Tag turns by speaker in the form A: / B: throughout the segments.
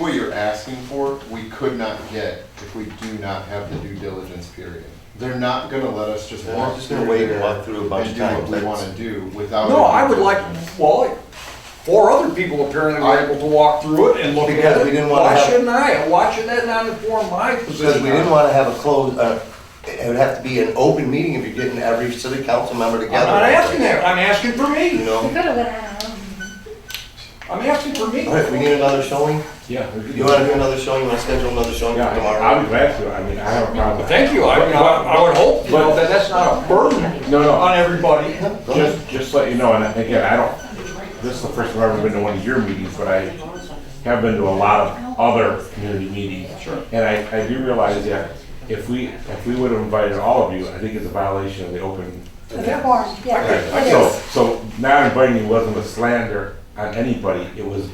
A: What you're asking for, we could not get if we do not have the due diligence period. They're not gonna let us just
B: They're
A: walk
B: just
A: through
B: gonna wait and
A: there
B: walk through a bunch
A: and
B: of
A: do what
B: times.
A: we wanna do without.
C: No, I would
A: due
C: like,
A: diligence.
C: well, four other people apparently were able to walk through it and look at it.
B: Because we didn't wanna
C: Why
B: have-
C: shouldn't I? Why should that not inform my position?
B: Because we didn't wanna have a closed, uh, it would have to be an open meeting if you're getting every city council member
C: I'm
B: together.
C: not asking that, I'm asking for
B: You
C: me,
D: We
B: know,
D: could have went out on our own.
C: I'm asking for me.
B: all right, we need another showing,
E: Yeah.
B: you wanna do another showing, you wanna schedule another showing
E: Yeah,
B: for
E: I-
B: tomorrow?
E: I'm glad to, I mean, I have a problem.
C: Thank you, I, I I would hope, you know, that that's not a burden
E: No, no,
C: on everybody.
B: Go ahead.
E: just, just let you know, and again, I don't, this is the first time I've ever been to one of your meetings, but I have been to a lot of other community meetings. Sure. And I, I do realize that if we, if we would have invited all of you, I think it's a violation of the open.
D: They're warm, yeah, it
E: So,
D: is.
E: so not inviting you wasn't a slander on anybody, it was,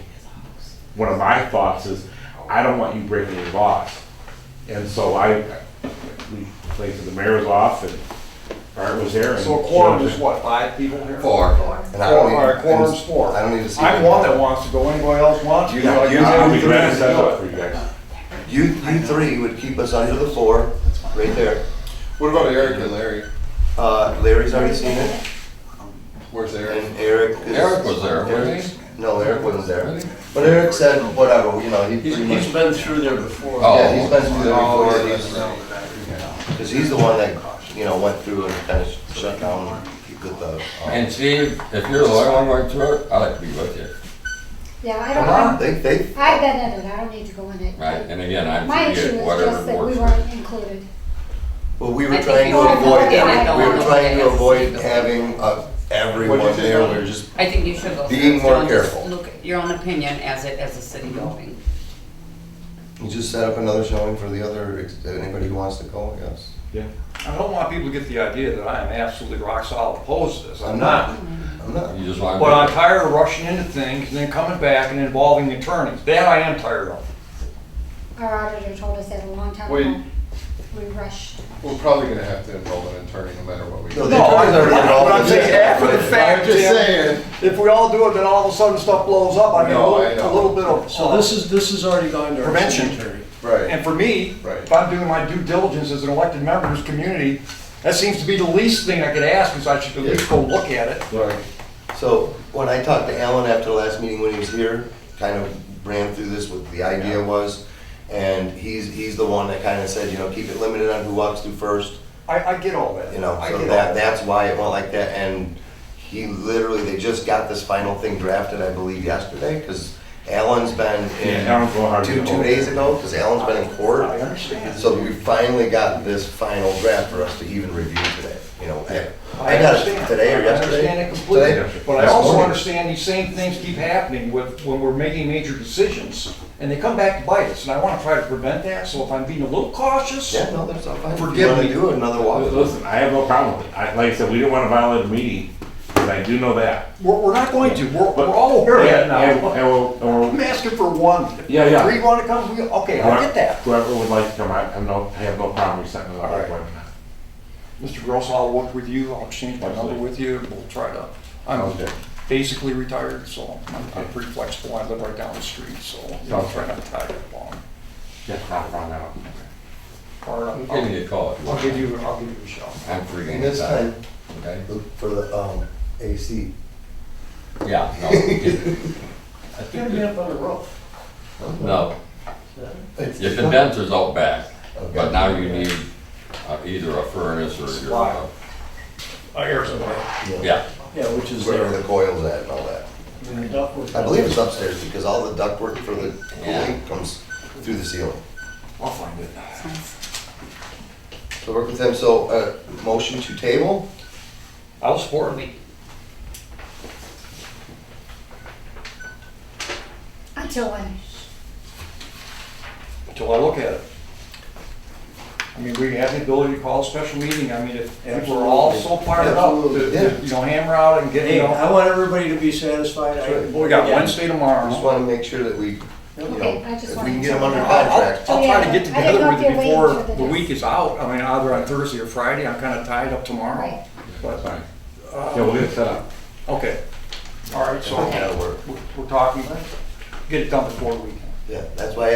E: one of my thoughts is, I don't want you breaking the laws. And so I, we played to the mayor's off and Bart was there and.
C: So a quorum is what, five people here?
B: Four. And I
C: Four,
B: don't need-
C: all right, quorum's four.
B: I don't need to see.
C: I'm one that wants to go, anybody else wants to?
B: You-
C: go?
B: you-
E: I'll be
C: I'm
E: glad to
C: glad
E: set
C: do
E: up
C: it.
E: for you guys.
B: You, you three would keep us under the floor, right there,
A: What about Eric and Larry?
B: uh, Larry's already seen it,
A: Where's Eric?
B: and Eric is.
A: Eric was there,
B: Eric-
A: wasn't he?
B: No, Eric wasn't there,
A: Wasn't he?
B: but Eric said, whatever, you know, he
F: He's,
B: pretty
F: he's
B: much,
F: been through there before.
A: Oh.
B: yeah, he's been through there
A: Oh,
B: before,
A: that's
B: he's-
A: right.
B: Because he's the one that, you know, went through and kind of shut down with the. um,
G: And Steve, if you're the only one going through it, I'd like to be with you,
D: Yeah, I don't,
B: Uh-huh,
D: I'm-
B: They, they,
D: I've been in it, I don't need to go in it.
G: right? And again, I'm
D: My
G: for
D: issue
G: you,
D: is just
G: whatever
D: that we
G: works. for you.
D: weren't included.
B: well, we
H: I
B: were
H: think
B: trying to
H: you all
B: avoid,
H: voted
D: it
B: we were
H: all.
B: trying to avoid having uh, everyone
A: What'd you say,
B: there, we
A: Helen?
B: were just,
H: I think you should go.
B: Being
H: through it, so
B: more
H: and just
B: careful.
H: Look at your own opinion as it, as a city building.
B: you just set up another showing for the other, ex- anybody who wants to go, yes.
C: I don't want people to get the idea that I am absolutely rock solid opposed to this, I'm not.
B: I'm not,
G: You just want.
C: But I'm tired of rushing into things and then coming back and involving attorneys. That I am tired of.
D: Our auditor told us that a long time
A: Wait.
D: ago. We rushed.
A: We're probably gonna have to enroll an attorney no matter what we
B: No,
A: do.
B: they- attorneys are gonna
C: But I'm
B: involve
C: saying
B: themselves,
C: after the
B: right?
C: fact,
A: I'm just
C: Tim,
A: saying.
C: if we all do it, then all of a sudden stuff blows up. I mean, a
A: No, I
C: little,
A: know.
C: a little bit of.
F: So this is, this has already gone to our
C: Prevention.
F: city attorney.
B: right,
C: And for me,
B: Right.
C: if I'm doing my due diligence as an elected member of this community, that seems to be the least thing I could ask, is I should at least go look at it.
B: right. So when I talked to Alan after the last meeting when he was here, kind of ran through this, what the idea was, and he's, he's the one that kind of said, you know, keep it limited on who walks through first,
C: I, I get all that.
B: You know,
C: I
B: so
C: get all
B: that, that's why it went like that, and he literally, they just got this final thing drafted, I believe, yesterday, because Alan's been
E: Yeah, Alan's going
B: in,
E: hard to
B: two,
E: get
B: two
E: hold of.
B: days ago, because Alan's been in
C: I
B: court.
C: understand.
B: So we finally got this final draft for us to even review today, you know. I
C: I
B: got
C: understand.
B: it today or yesterday.
C: I understand it completely,
B: Today?
C: but I
B: This
C: also
B: morning.
C: understand these same things keep happening with, when we're making major decisions, and they come back to bite us, and I wanna try to prevent that, so if I'm being a little cautious,
B: Yeah, no, that's all fine. If you
C: Forgive
B: wanna
C: me.
B: do another walk.
E: Listen, I have no problem with it. I, like I said, we didn't want to violate the meeting, but I do know that.
C: we're, we're not going to, we're,
E: But-
C: we're all aware of that
E: And-
C: now.
E: and we'll- and we'll-
C: I'm asking for one.
E: Yeah, yeah.
C: Three wanna come, we, okay, I get that.
E: Whoever would like to come, I, I no, I have no problem accepting that
C: All right.
E: appointment.
C: Mr. Gross, I'll work with you, I'll exchange my number with you, and we'll try to, I'm
E: Okay.
C: basically retired, so I'm- I'm pretty flexible, I live right down the street, so I'll try not to tie it long.
E: Just hop on out.
C: Or
G: I'm
C: I'll-
G: giving you a call if you
C: I'll
G: want.
C: give you, I'll give you a shot.
G: I'm free
B: And this time,
G: anytime, okay?
B: look for the, um, AC.
G: Yeah, no. it-
F: Gotta be up on the roof.
G: No,
B: It's-
G: your condenser's out back, but
B: Okay.
G: now you need uh, either a furnace or
C: Supply.
G: your,
C: I hear somebody.
G: yeah.
F: Yeah, which is
B: Wherever
F: there.
B: the coil's at and all that.
F: And the ductwork-
B: I believe it's upstairs, because all the ductwork for the
G: Yeah.
B: cooling comes through the ceiling.
C: I'll find it.
B: So work with them, so, uh, motion to table?
C: I'll support it.
D: Until when?
C: until I look at it. I mean, we have the ability to call a special meeting, I mean, if if we're all so fired up, to- to, you know, hammer out and get, you
F: Hey,
C: know.
F: I want everybody to be satisfied. I-
C: We got Wednesday
B: I just
C: tomorrow.
B: wanna make sure that we, you know,
D: Okay, I just
B: if we
D: wanted
B: can
D: to
B: get them under
D: check.
C: I'll,
B: contract.
C: I'll try to get
D: I didn't
C: together
D: know
C: with
D: if
C: you
D: you're waiting
C: before
D: for the
C: the week is out, I mean, either on Thursday or Friday, I'm kinda tied up tomorrow.
D: Right.
C: But,
E: Fine. Yeah, we'll get set up.
C: okay, all right, so
B: That'll work.
C: we're- we're talking, get it done before the weekend.
B: Yeah, that's why I